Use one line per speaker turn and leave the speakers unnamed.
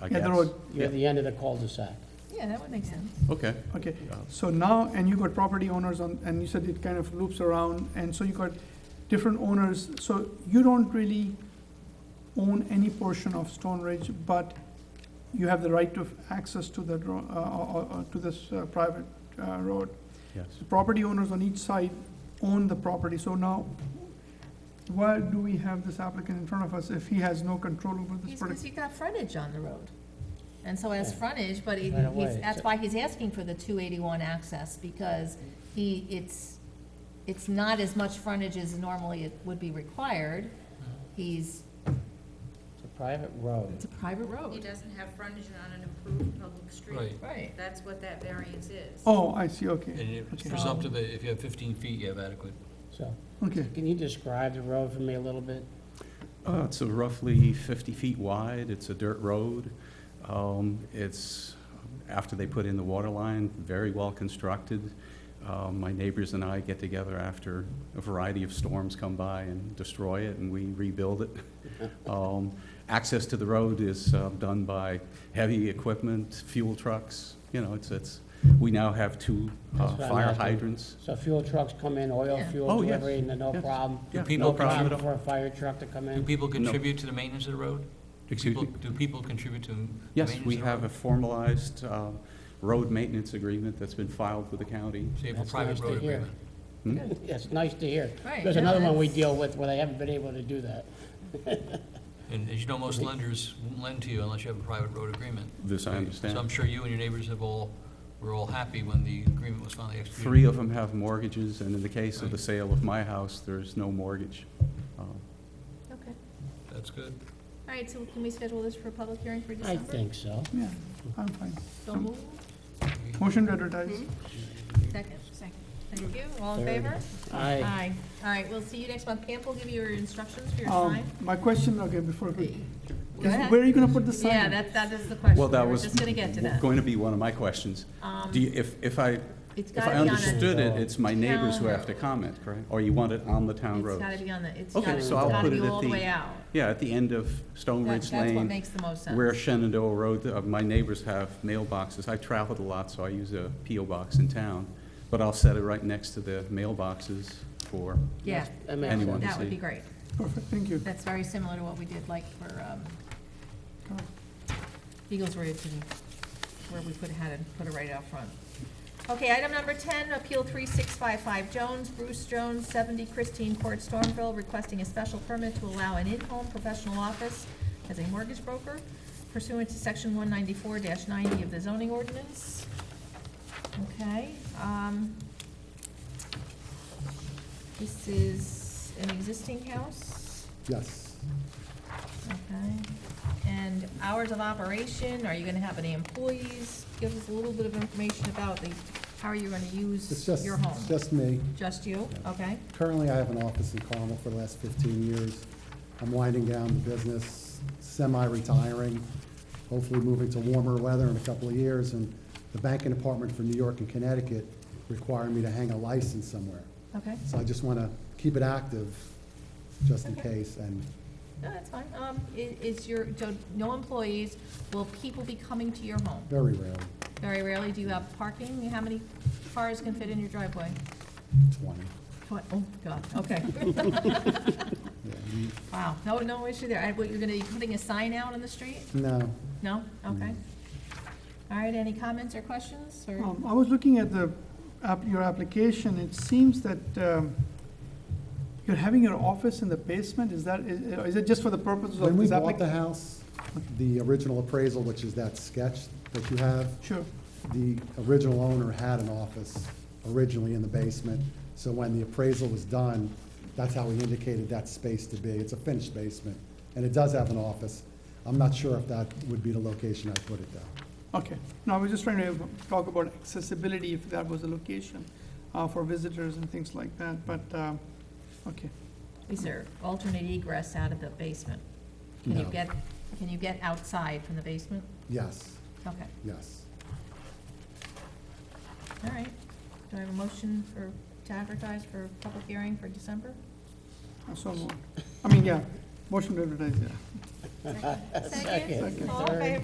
I
Yeah,
guess.
the road,
You're at the end of the cul-de-sac.
Yeah, that would make sense.
Okay.
okay.
Yeah.
So now, and you got property owners on, and you said it kind of loops around, and so you got different owners, so you don't really own any portion of Stone Ridge, but you have the right of access to the, dro- uh, uh, uh, to this uh, private uh, road.
Yes.
The property owners on each side own the property, so now, why do we have this applicant in front of us if he has no control over this
Because
particular?
he got frontage on the road. And so has
Yeah.
frontage, but he-
Right away,
he's, that's
so-
why he's asking for the 281 access, because he, it's, it's not as much frontage as normally it would be required. He's,
It's a private road.
it's a private
He
road.
doesn't have frontage on an approved public street.
Right,
Right.
That's what that variance is.
Oh, I see, okay.
and it's
Okay.
presumptive that if you have 15 feet, you have adequate.
So,
Okay,
can you describe the road for me a little bit?
Uh, It's a roughly 50 feet wide, it's a dirt road. Um, It's, after they put in the water line, very well constructed. Um, My neighbors and I get together after a variety of storms come by and destroy it, and we rebuild it. Um, Access to the road is uh, done by heavy equipment, fuel trucks, you know, it's, it's, we now have two uh,
That's what I'm
fire
asking.
hydrants.
So fuel trucks come in, oil,
Yeah.
fuel
Oh, yes,
delivery, and no
yes.
problem?
Yeah,
Do people
No
problem
problem for a fire truck to come
Do
in?
people contribute to the maintenance of the road? Do
Excuse
people-
me?
Do people contribute to the maintenance
Yes,
of the road?
we have a formalized uh, road maintenance agreement that's been filed with the county.
So you have a
That's nice
private
to
road
hear.
agreement.
Hmm?
It's nice to hear.
Right,
There's
no,
another one we
that's-
deal with where they haven't been able to do that.
And as you know, most lenders won't lend to you unless you have a private road agreement.
This I
So I'm
understand.
sure you and your neighbors have all, were all happy when the agreement was finally executed.
Three of them have mortgages, and in the case of the sale of my house, there's no mortgage. Uh,
Okay.
That's good.
All right, so can we schedule this for a public hearing for
I
December?
think so.
yeah, I'm fine.
So move.
Motion to advertise.
Second. Second. Thank you. All in favor?
I,
Aye. All right, we'll see you next month. Pam will give you your instructions for your
Oh.
Um,
sign.
my question, okay, before, we-
Go
is
ahead.
where are you gonna put the sign?
Yeah, that, that is the question.
Well, that
We were
was
Just gonna get to that. Um,
going to be one of my questions. Do you, if, if I,
It's
if I
gotta be on a,
understood it, it's my neighbors who have to
road.
comment, correct? Or you want it on the town
it's
road?
gotta be on the, it's
Okay,
gotta, it's
so I'll
gotta
put
be
it at
all the
the-
way out.
Yeah, at the end of Stone
That-
Ridge
That's what
Lane,
makes the most sense.
where Shenandoah Road, uh, my neighbors have mailboxes. I traveled a lot, so I use a PO box in town, but I'll set it right next to the mailboxes for
Yeah,
that makes
Anyone.
sense.
that would
see.
be great.
Perfect, thank you.
That's very similar to what we did like for, um, Eagles Ridge and where we put, had it, put it right out front. Okay, item number ten, Appeal three six five five Jones, Bruce Jones, seventy Christine Court, Stormville, requesting a special permit to allow an in-home professional office as a mortgage broker pursuant to section one ninety-four ninety of the zoning ordinance. Okay, um, this is an existing house?
Yes.
Okay, and hours of operation, are you gonna have any employees? Give us a little bit of information about the, how are you gonna
It's
use
just,
your home?
it's just me.
Just you, okay?
Currently, I have an office in Carmel for the last 15 years. I'm winding down the business, semi-retiring, hopefully moving to warmer weather in a couple of years. And the banking department for New York and Connecticut require me to hang a license somewhere.
Okay,
So I just want to keep it active, just in
Okay.
case. And
no, that's fine, um, i- is your, so no employees, will people be coming to your home?
very rarely,
Very rarely, do you have parking, how many cars can fit in your driveway?
20.
What, oh, God, okay,
Yeah, you-
wow, no, no issue there, I, what, you're gonna be putting a sign out on the street?
No,
No, okay. All right, any comments or questions, or?
Um, I was looking at the, app- your application, it seems that um, you're having your office in the basement, is that, is is it just for the purposes
When
of
we
this
bought the
application?
house, the original appraisal, which is that sketch that you have,
Sure,
the original owner had an office originally in the basement. So when the appraisal was done, that's how we indicated that space to be. It's a finished basement, and it does have an office. I'm not sure if that would be the location I put it though.
okay. No, I was just trying to talk about accessibility, if that was the location uh, for visitors and things like that, but, um, okay.
Is there alternate egress out of the basement? Can you
No.
get, can you get outside from the basement?
Yes,
Okay,
yes.
all right. Do I have a motion for, to advertise for public hearing for December?
So, moved. I mean, yeah, motion to advertise, yeah.
Second.
Second.
All in favor?